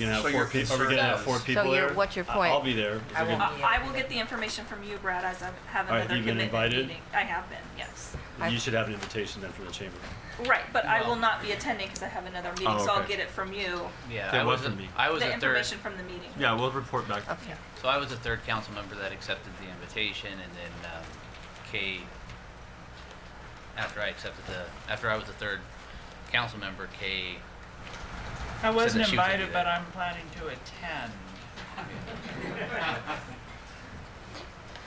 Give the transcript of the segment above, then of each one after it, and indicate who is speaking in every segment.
Speaker 1: You know,
Speaker 2: So
Speaker 1: four
Speaker 2: your
Speaker 1: people, are we
Speaker 2: concern
Speaker 1: gonna have
Speaker 2: is-
Speaker 1: four
Speaker 2: So
Speaker 1: people
Speaker 3: your-
Speaker 1: there?
Speaker 3: what's your
Speaker 1: I-
Speaker 3: point?
Speaker 1: I'll be there.
Speaker 4: I
Speaker 1: We're
Speaker 4: will
Speaker 1: gonna-
Speaker 4: be
Speaker 5: Uh, I will get the information from you, Brad, as I have
Speaker 1: All right,
Speaker 5: another
Speaker 1: you've been
Speaker 5: commitment
Speaker 1: invited?
Speaker 5: meeting. I have been, yes.
Speaker 3: I-
Speaker 1: You should have an invitation then from the chamber.
Speaker 5: Right, but I will
Speaker 4: Well-
Speaker 5: not be attending because I have another meeting, so I'll
Speaker 1: Oh, okay.
Speaker 5: get it from you.
Speaker 4: Yeah,
Speaker 1: Yeah,
Speaker 4: I
Speaker 1: what
Speaker 4: was,
Speaker 1: from
Speaker 4: a-
Speaker 1: me?
Speaker 4: I was
Speaker 5: The
Speaker 4: a third,
Speaker 5: information from the meeting.
Speaker 1: Yeah, we'll report back.
Speaker 3: Okay.
Speaker 4: so I was a third council member that accepted the invitation, and then um, Kay, after I accepted the, after I was the third council member, Kay,
Speaker 6: I wasn't
Speaker 4: that she was gonna
Speaker 6: invited,
Speaker 4: do
Speaker 6: but
Speaker 4: that.
Speaker 6: I'm planning to attend.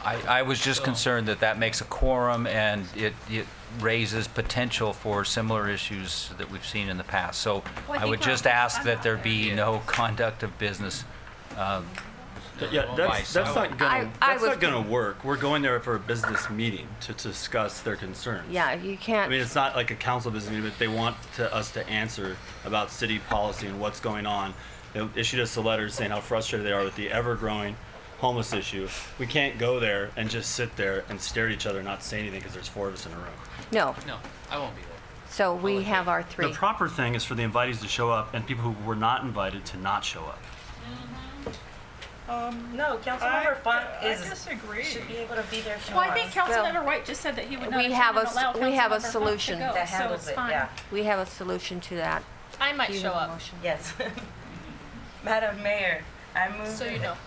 Speaker 7: I, I was just concerned that that makes a quorum and it, it raises potential for similar issues that we've seen in the past. So
Speaker 5: Well, I
Speaker 7: I would
Speaker 5: think we're-
Speaker 7: just ask
Speaker 5: I'm
Speaker 7: that
Speaker 5: not
Speaker 7: there
Speaker 5: there.
Speaker 7: be
Speaker 4: Yeah.
Speaker 7: no conduct of business. um,
Speaker 1: Yeah, that's,
Speaker 7: Vice.
Speaker 1: that's not
Speaker 3: I-
Speaker 1: gonna,
Speaker 3: I
Speaker 1: that's not
Speaker 3: would-
Speaker 1: gonna work. We're going there for a business meeting to discuss their concerns.
Speaker 3: Yeah, you
Speaker 1: I mean,
Speaker 3: can't,
Speaker 1: it's not like a council business meeting, but they want to, us to answer about city policy and what's going on. They issued us a letter saying how frustrated they are with the ever-growing homeless issue. We can't go there and just sit there and stare at each other and not say anything because there's four of us in a room.
Speaker 3: no.
Speaker 4: no, I won't be there.
Speaker 3: So we have our
Speaker 1: The
Speaker 3: three.
Speaker 1: proper thing is for the invitees to show up and people who were not invited to not show up.
Speaker 8: No,
Speaker 6: I-
Speaker 8: Councilmember Funk
Speaker 6: I
Speaker 8: is,
Speaker 6: disagree.
Speaker 8: should be able to be there. if she
Speaker 5: Well, I think
Speaker 8: wants.
Speaker 3: Well,
Speaker 5: Councilmember White just said that he would not
Speaker 3: we have
Speaker 5: attend and
Speaker 3: a s-
Speaker 5: allow
Speaker 3: we have a
Speaker 5: Councilmember Hunt
Speaker 3: solution.
Speaker 5: to go,
Speaker 8: That
Speaker 5: so
Speaker 8: handles
Speaker 5: it's
Speaker 8: it,
Speaker 5: fine.
Speaker 8: yeah.
Speaker 3: We have a solution to that.
Speaker 9: I might
Speaker 3: Do you
Speaker 9: show
Speaker 3: have a
Speaker 9: up,
Speaker 3: motion?
Speaker 8: Yes. Madam Mayor, I move.
Speaker 9: so you
Speaker 8: that-
Speaker 9: know.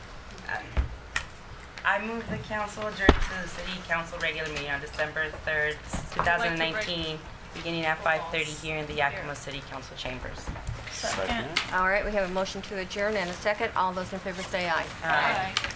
Speaker 8: I move the council adjourn to the city council regular meeting on December 3rd, 2019, beginning at 5:30 here in the Yakima City Council chambers.
Speaker 1: Second.
Speaker 3: All right, we have a motion to adjourn and a second. All those in favor say aye.
Speaker 8: Aye.
Speaker 9: Bye.